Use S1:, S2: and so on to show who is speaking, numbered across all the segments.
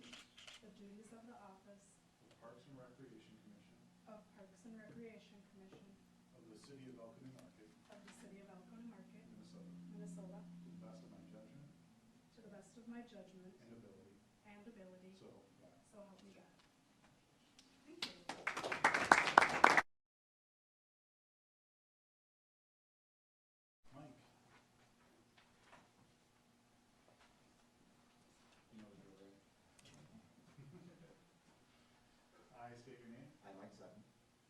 S1: the duties of the office
S2: of Parks and Recreation Commission
S1: of Parks and Recreation Commission
S2: of the City of Elkhorn Market,
S1: of the City of Elkhorn Market,
S2: Minnesota,
S1: Minnesota,
S2: to the best of my judgment
S1: to
S2: and
S1: the best of my judgment
S2: ability,
S1: and ability,
S2: so help me God.
S1: so help me God. Thank you.
S2: Mike. You know the drill, right? I state your name.
S3: I, Mike Sutton,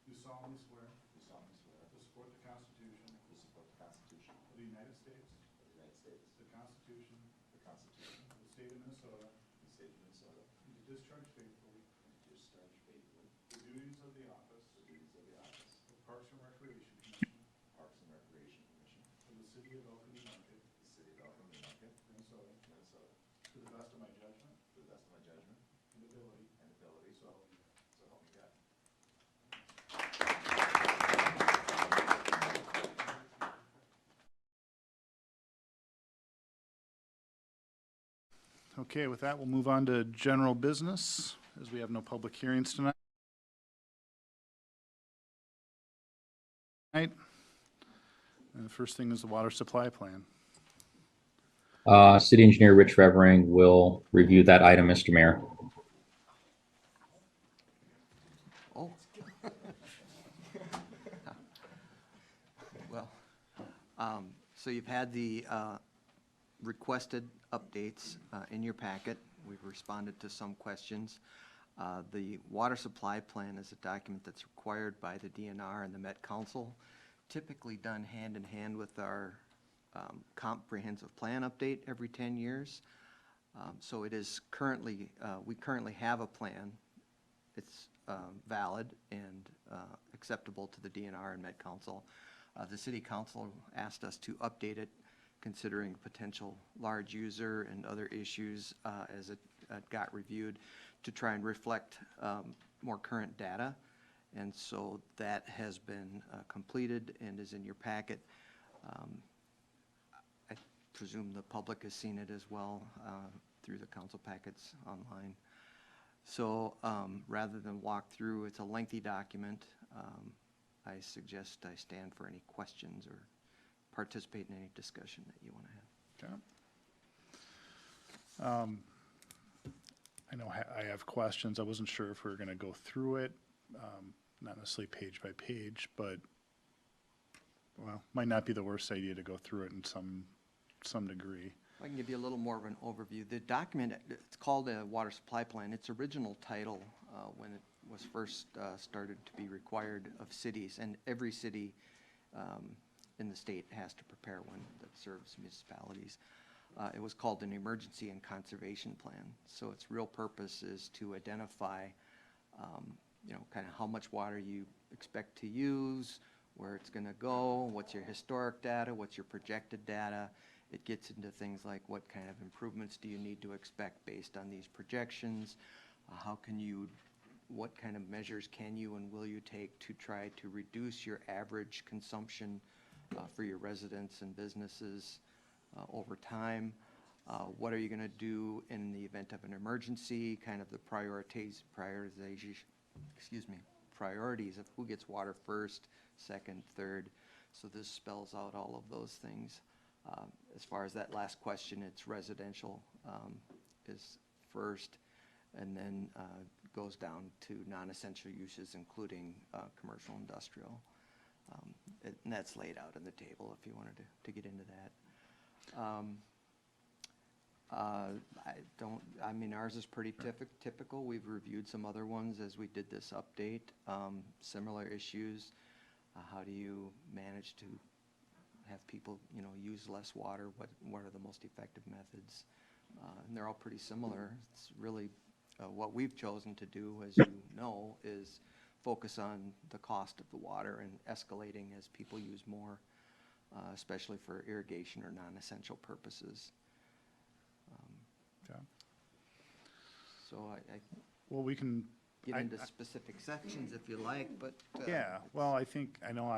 S2: Do solemnly swear
S3: do solemnly swear
S2: to support the Constitution
S3: to support the Constitution
S2: of the United States,
S3: of the United States,
S2: the Constitution
S3: the Constitution
S2: of the State of Minnesota,
S3: of the State of Minnesota,
S2: and to discharge faithfully
S3: and to discharge faithfully
S2: the duties of the office
S3: the duties of the office
S2: of Parks and Recreation Commission
S3: of Parks and Recreation Commission of
S2: of the City of Elkhorn Market,
S3: the City of Elkhorn Minnetonka,
S2: Minnesota,
S3: Minnesota,
S2: to the best of my judgment
S3: to the best of my judgment
S2: and ability,
S3: and ability,
S2: so help me God.
S3: so help me God.
S2: Okay, with that, we'll move on to general business, as we have no public hearings tonight. Tonight, And the first thing is the water supply plan.
S4: Uh, City Engineer Rich Revering will review that item, Mr. Mayor.
S5: Oh. Well, um, so you've had the uh, requested updates uh, in your packet. We've responded to some questions. Uh, The water supply plan is a document that's required by the DNR and the Met Council, typically done hand in hand with our um, comprehensive plan update every 10 years. Um, So it is currently, uh, we currently have a plan it's um, valid and uh, acceptable to the DNR and Met Council. Uh, The city council asked us to update it considering potential large user and other issues uh, as it uh, got reviewed to try and reflect um, more current data. And so that has been uh, completed and is in your packet. Um, I presume the public has seen it as well uh, through the council packets online. So um, rather than walk through, it's a lengthy document. um, I suggest I stand for any questions or participate in any discussion that you want to have.
S2: Okay. Um, I know ha- I have questions. I wasn't sure if we were going to go through it, um, not necessarily page by page, but, well, might not be the worst idea to go through it in some, some degree.
S4: I can give you a little more of an overview. The document, it's called a water supply plan. Its original title, uh, when it was first uh, started to be required of cities, and every city um, in the state has to prepare one that serves municipalities. uh, It was called an emergency and conservation plan. So its real purpose is to identify um, you know, kind of how much water you expect to use, where it's going to go, what's your historic data, what's your projected data. It gets into things like what kind of improvements do you need to expect based on these projections? Uh, How can you, what kind of measures can you and will you take to try to reduce your average consumption uh, for your residents and businesses uh, over time? Uh, What are you going to do in the event of an emergency, kind of the priorities, prioritization, excuse me, priorities of who gets water first, second, third. So this spells out all of those things. Um, As far as that last question, it's residential um, is first, and then uh, goes down to non-essential uses, including uh, commercial, industrial. Um, And that's laid out in the table if you wanted to to get into that. Um, uh, I don't, I mean, ours is pretty typic- typical. We've reviewed some other ones as we did this update. Um, Similar issues. Uh, How do you manage to have people, you know, use less water? What, what are the most effective methods? Uh, And they're all pretty similar. It's really, uh, what we've chosen to do, as you know, is focus on the cost of the water and escalating as people use more, uh, especially for irrigation or non-essential purposes.
S2: Okay.
S4: So I, I
S2: Well, we can,
S4: get
S2: I-
S4: into
S2: I-
S4: specific sections if you like, but. uh,
S2: yeah, well, I think, I know